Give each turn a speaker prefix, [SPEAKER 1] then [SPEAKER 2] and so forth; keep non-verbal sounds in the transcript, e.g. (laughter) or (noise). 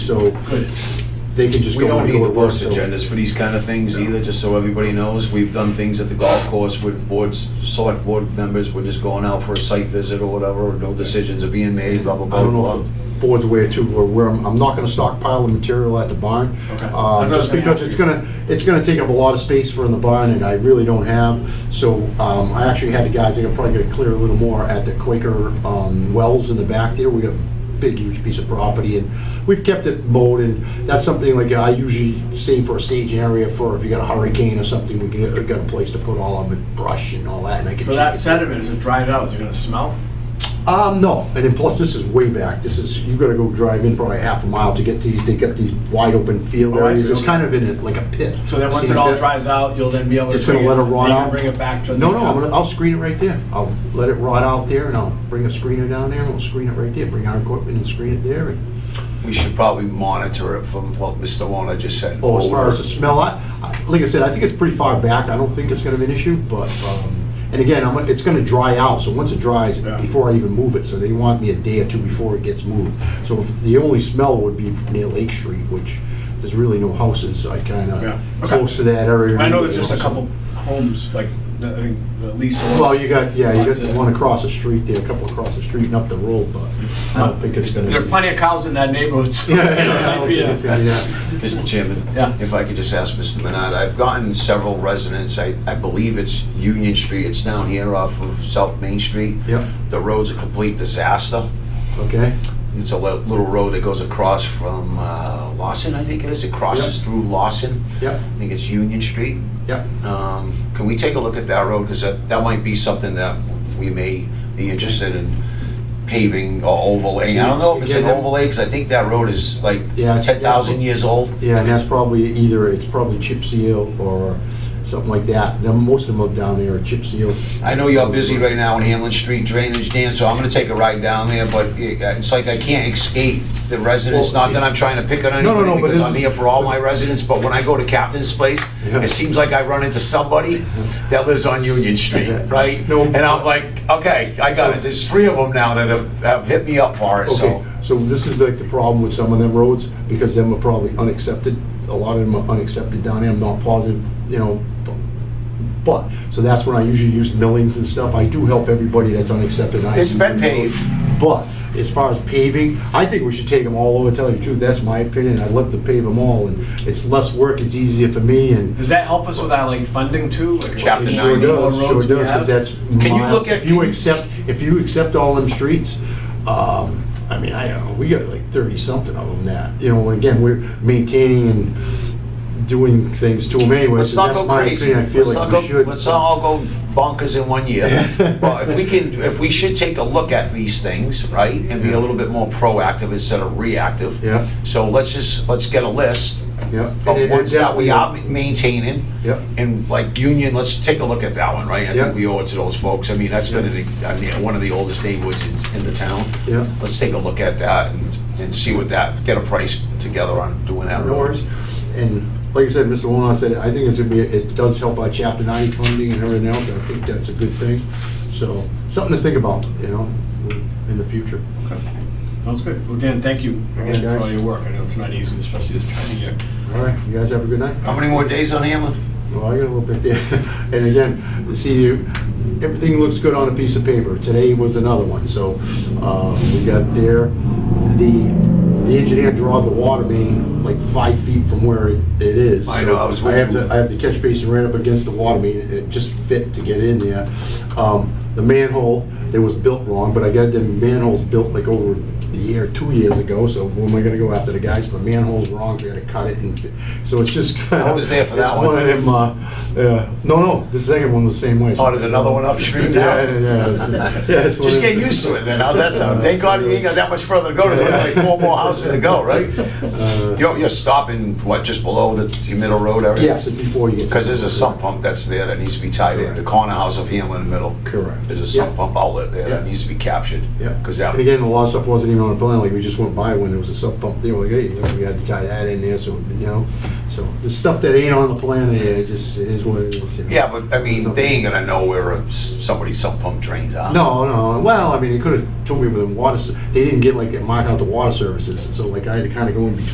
[SPEAKER 1] so
[SPEAKER 2] Good.
[SPEAKER 1] they can just
[SPEAKER 2] We
[SPEAKER 1] go
[SPEAKER 2] don't
[SPEAKER 1] and
[SPEAKER 2] need
[SPEAKER 1] go
[SPEAKER 2] the
[SPEAKER 1] to work.
[SPEAKER 2] worst
[SPEAKER 1] so-
[SPEAKER 2] agendas for these kind of things either, just so everybody knows. We've done things at the golf course with boards, select board members, we're just going out for a site visit or whatever, no decisions are being made, blah, blah,
[SPEAKER 1] I
[SPEAKER 2] blah.
[SPEAKER 1] don't know if the board's aware too, where, where I'm, I'm not gonna stockpile the material at the barn. Uh,
[SPEAKER 3] Okay. That's what I was
[SPEAKER 1] just
[SPEAKER 3] gonna
[SPEAKER 1] because
[SPEAKER 3] ask
[SPEAKER 1] it's
[SPEAKER 3] you.
[SPEAKER 1] gonna, it's gonna take up a lot of space for in the barn and I really don't have. So, um, I actually had the guys, they're probably gonna clear a little more at the Quaker, um, wells in the back there. We got a big, huge piece of property and we've kept it mowed and that's something like I usually save for a staging area for if you got a hurricane or something, we can, we got a place to put all of the brush and all that and I can.
[SPEAKER 3] So that
[SPEAKER 1] check it.
[SPEAKER 3] sediment, as it dried out, is it gonna smell?
[SPEAKER 1] Um, no, and then plus this is way back. This is you got to go drive in probably half a mile to get these. They got these wide open field
[SPEAKER 3] Oh, I
[SPEAKER 1] areas.
[SPEAKER 3] see,
[SPEAKER 1] It's
[SPEAKER 3] okay.
[SPEAKER 1] kind of in it like a pit.
[SPEAKER 3] So then once
[SPEAKER 1] See
[SPEAKER 3] it
[SPEAKER 1] the
[SPEAKER 3] all
[SPEAKER 1] pit?
[SPEAKER 3] dries out, you'll then be able to.
[SPEAKER 1] It's gonna
[SPEAKER 3] bring
[SPEAKER 1] let it rot
[SPEAKER 3] you can
[SPEAKER 1] out?
[SPEAKER 3] Bring it back to. the-
[SPEAKER 1] No, no, I'm gonna, I'll screen it right there. I'll let it rot out there, and I'll bring a screener down there, and we'll screen it right there. Bring our equipment and screen it there. And,
[SPEAKER 2] We should probably monitor it from what Mr. Warner just said.
[SPEAKER 1] oh, as far as the smell, I, I, like I said, I think it's pretty far back. I don't think it's gonna be an issue, but um, and again, I'm, gonna- it's gonna dry out. So once it dries,
[SPEAKER 3] Yeah.
[SPEAKER 1] before I even move it, so they want me a day or two before it gets moved. So if the only smell would be near Lake Street, which there's really no houses. I kind of
[SPEAKER 3] Yeah. Okay.
[SPEAKER 1] close to that area.
[SPEAKER 3] I know
[SPEAKER 1] anyway,
[SPEAKER 3] there's just a
[SPEAKER 1] so-
[SPEAKER 3] couple homes, like, I think, at least.
[SPEAKER 1] Well, you got yeah, you
[SPEAKER 3] But,
[SPEAKER 1] got
[SPEAKER 3] uh,
[SPEAKER 1] the one across the street there, a couple across the street, and up the road, but (laughs) I don't think it's gonna.
[SPEAKER 3] There are plenty of cows in that neighborhood, so.
[SPEAKER 1] (laughs)
[SPEAKER 3] (laughs)
[SPEAKER 1] Yeah, I don't think it's gonna- yeah.
[SPEAKER 2] Mr. Chairman?
[SPEAKER 3] Yeah.
[SPEAKER 2] If I could just ask Mr. Minard, I've gotten several residents, I, I believe it's Union Street, it's down here off of South Main Street.
[SPEAKER 1] Yep.
[SPEAKER 2] The road's a complete disaster.
[SPEAKER 1] Okay.
[SPEAKER 2] It's a li- little road that goes across from uh, Lawson, I think it is. It crosses
[SPEAKER 1] Yep.
[SPEAKER 2] through Lawson.
[SPEAKER 1] Yep.
[SPEAKER 2] I think it's Union Street.
[SPEAKER 1] Yep.
[SPEAKER 2] Um, Can we take a look at that road? Because that, that might be something that we may be interested in paving or overlaying. I don't know if it's an
[SPEAKER 1] Yeah, that-
[SPEAKER 2] overlay, because I think that road is like
[SPEAKER 1] Yeah, it's-
[SPEAKER 2] 10,000 years old.
[SPEAKER 1] Yeah, and that's probably either, it's probably chip seal or something like that. Then most of them up down there are chip seal.
[SPEAKER 2] I know you're busy right now in Hamlin Street drainage, Dan, so I'm gonna take a ride down there, but it- uh, it's like I can't escape the residents,
[SPEAKER 1] Well,
[SPEAKER 2] not that I'm trying to pick on
[SPEAKER 1] no, no,
[SPEAKER 2] anybody,
[SPEAKER 1] but
[SPEAKER 2] because
[SPEAKER 1] this
[SPEAKER 2] I'm
[SPEAKER 1] is-
[SPEAKER 2] here for all my residents, but when I go to Captain's Place,
[SPEAKER 1] Yeah.
[SPEAKER 2] it seems like I run into somebody that lives on Union Street,
[SPEAKER 1] Yeah.
[SPEAKER 2] right?
[SPEAKER 1] No.
[SPEAKER 2] And I'm like, okay, I got
[SPEAKER 1] So-
[SPEAKER 2] it, there's three of them now that have, have hit me up for it,
[SPEAKER 1] Okay,
[SPEAKER 2] so.
[SPEAKER 1] so this is like the problem with some of them roads, because them are probably unaccepted. A lot of them are unaccepted down there, I'm not positive, you know, bu- but, so that's when I usually use millings and stuff. I do help everybody that's unaccepted. I
[SPEAKER 2] It's
[SPEAKER 1] do
[SPEAKER 2] been
[SPEAKER 1] millings. But as far as paving, I think we should take them all over, tell you the truth, that's my opinion. I'd love to pave them all, and it's less work, it's easier for me, and
[SPEAKER 3] Does that help us with our, like, funding too? Like,
[SPEAKER 2] Chapter
[SPEAKER 1] It
[SPEAKER 3] what-
[SPEAKER 1] sure
[SPEAKER 2] nine.
[SPEAKER 1] does,
[SPEAKER 3] More
[SPEAKER 1] sure
[SPEAKER 3] roads we
[SPEAKER 1] does,
[SPEAKER 3] have?
[SPEAKER 1] because that's
[SPEAKER 2] Can you
[SPEAKER 1] miles.
[SPEAKER 2] look at-
[SPEAKER 1] If you accept, if you accept all them streets, um, I mean, I don't know, we got like thirty-something of them now. You know, again, we're maintaining and doing things to them anyway,
[SPEAKER 2] Let's
[SPEAKER 1] so
[SPEAKER 2] not
[SPEAKER 1] that's
[SPEAKER 2] go
[SPEAKER 1] my
[SPEAKER 2] crazy.
[SPEAKER 1] opinion, I feel
[SPEAKER 2] Let's
[SPEAKER 1] like
[SPEAKER 2] not
[SPEAKER 1] we
[SPEAKER 2] go-
[SPEAKER 1] should.
[SPEAKER 2] Let's not all go bonkers in one year. But if we can, if we should take a look at these things, right, and be a little bit more proactive instead of reactive.
[SPEAKER 1] Yeah.
[SPEAKER 2] So let's just, let's get a list
[SPEAKER 1] Yep. And it- it
[SPEAKER 2] of ones that we
[SPEAKER 1] definitely-
[SPEAKER 2] are maintaining.
[SPEAKER 1] Yep.
[SPEAKER 2] And like Union, let's take a look at that one, right? I
[SPEAKER 1] Yep.
[SPEAKER 2] think we owe it to those folks. I mean, that's been, an- I mean, one of the oldest neighborhoods in, in the town.
[SPEAKER 1] Yep.
[SPEAKER 2] Let's take a look at that and, and see what that, get a price together on doing that.
[SPEAKER 1] No worries. And like I said, Mr. Wolin, I said, I think it's gonna be, it does help our chapter ninety funding and everything else, I think that's a good thing. So, something to think about, you know, in the future.
[SPEAKER 3] Sounds good. Well, Dan, thank you again for
[SPEAKER 1] guys.
[SPEAKER 3] all your work. I know it's not easy, especially this time of year.
[SPEAKER 1] All right, you guys have a good night.
[SPEAKER 2] How many more days on Hamlin?
[SPEAKER 1] Well, I got a little bit there. (laughs) And again, see, you- everything looks good on a piece of paper. Today was another one, so uh, we got there. The, the engineer drawed the water main like five feet from where it it is.
[SPEAKER 2] I know, I was
[SPEAKER 1] I have
[SPEAKER 2] wondering.
[SPEAKER 1] the, I have the catch basin right up against the water main, it just fit to get in there. Um, The manhole, it was built wrong, but I got the manholes built like over a year, two years ago, so who am I gonna go after the guys? The manhole's wrong, we gotta cut it and, fi- so it's just.
[SPEAKER 2] (laughs) I was there for that
[SPEAKER 1] It's
[SPEAKER 2] one.
[SPEAKER 1] of them, uh, uh, no, no, the second one was the same way.
[SPEAKER 2] Oh, there's another one upstream now?
[SPEAKER 1] Yeah, yeah, yeah. it's just- yeah, it's one
[SPEAKER 2] (laughs) Just
[SPEAKER 1] of
[SPEAKER 2] get
[SPEAKER 1] them.
[SPEAKER 2] used to it then, how's that sound? Thank God you ain't got that much further to go, there's only like four more houses to go, right? You're, you're stopping, what, just below the the middle road area?
[SPEAKER 1] Yes, it's before you get. to-
[SPEAKER 2] Because there's a sump pump that's there that needs to be tied in, the corner house of Hamlin Middle.
[SPEAKER 1] Correct.
[SPEAKER 2] There's a sump
[SPEAKER 1] Yeah.
[SPEAKER 2] pump outlet there that
[SPEAKER 1] Yeah.
[SPEAKER 2] needs to be captured.
[SPEAKER 1] Yeah.
[SPEAKER 2] Because that,
[SPEAKER 1] And again, a lot of stuff wasn't even on the plan, like, we just went by when there was a sub pump, they were like, hey, you know, we had to tie that in there, so, you know, so, the stuff that ain't on the plan, yeah, it just, it is what it is. you know.
[SPEAKER 2] yeah, but I mean, they ain't gonna know where a s- somebody's sump pump drains out.
[SPEAKER 1] No, no, well, I mean, they could've told me with the water, s- they didn't get like, mark out the water services, so like, I had to kinda go in between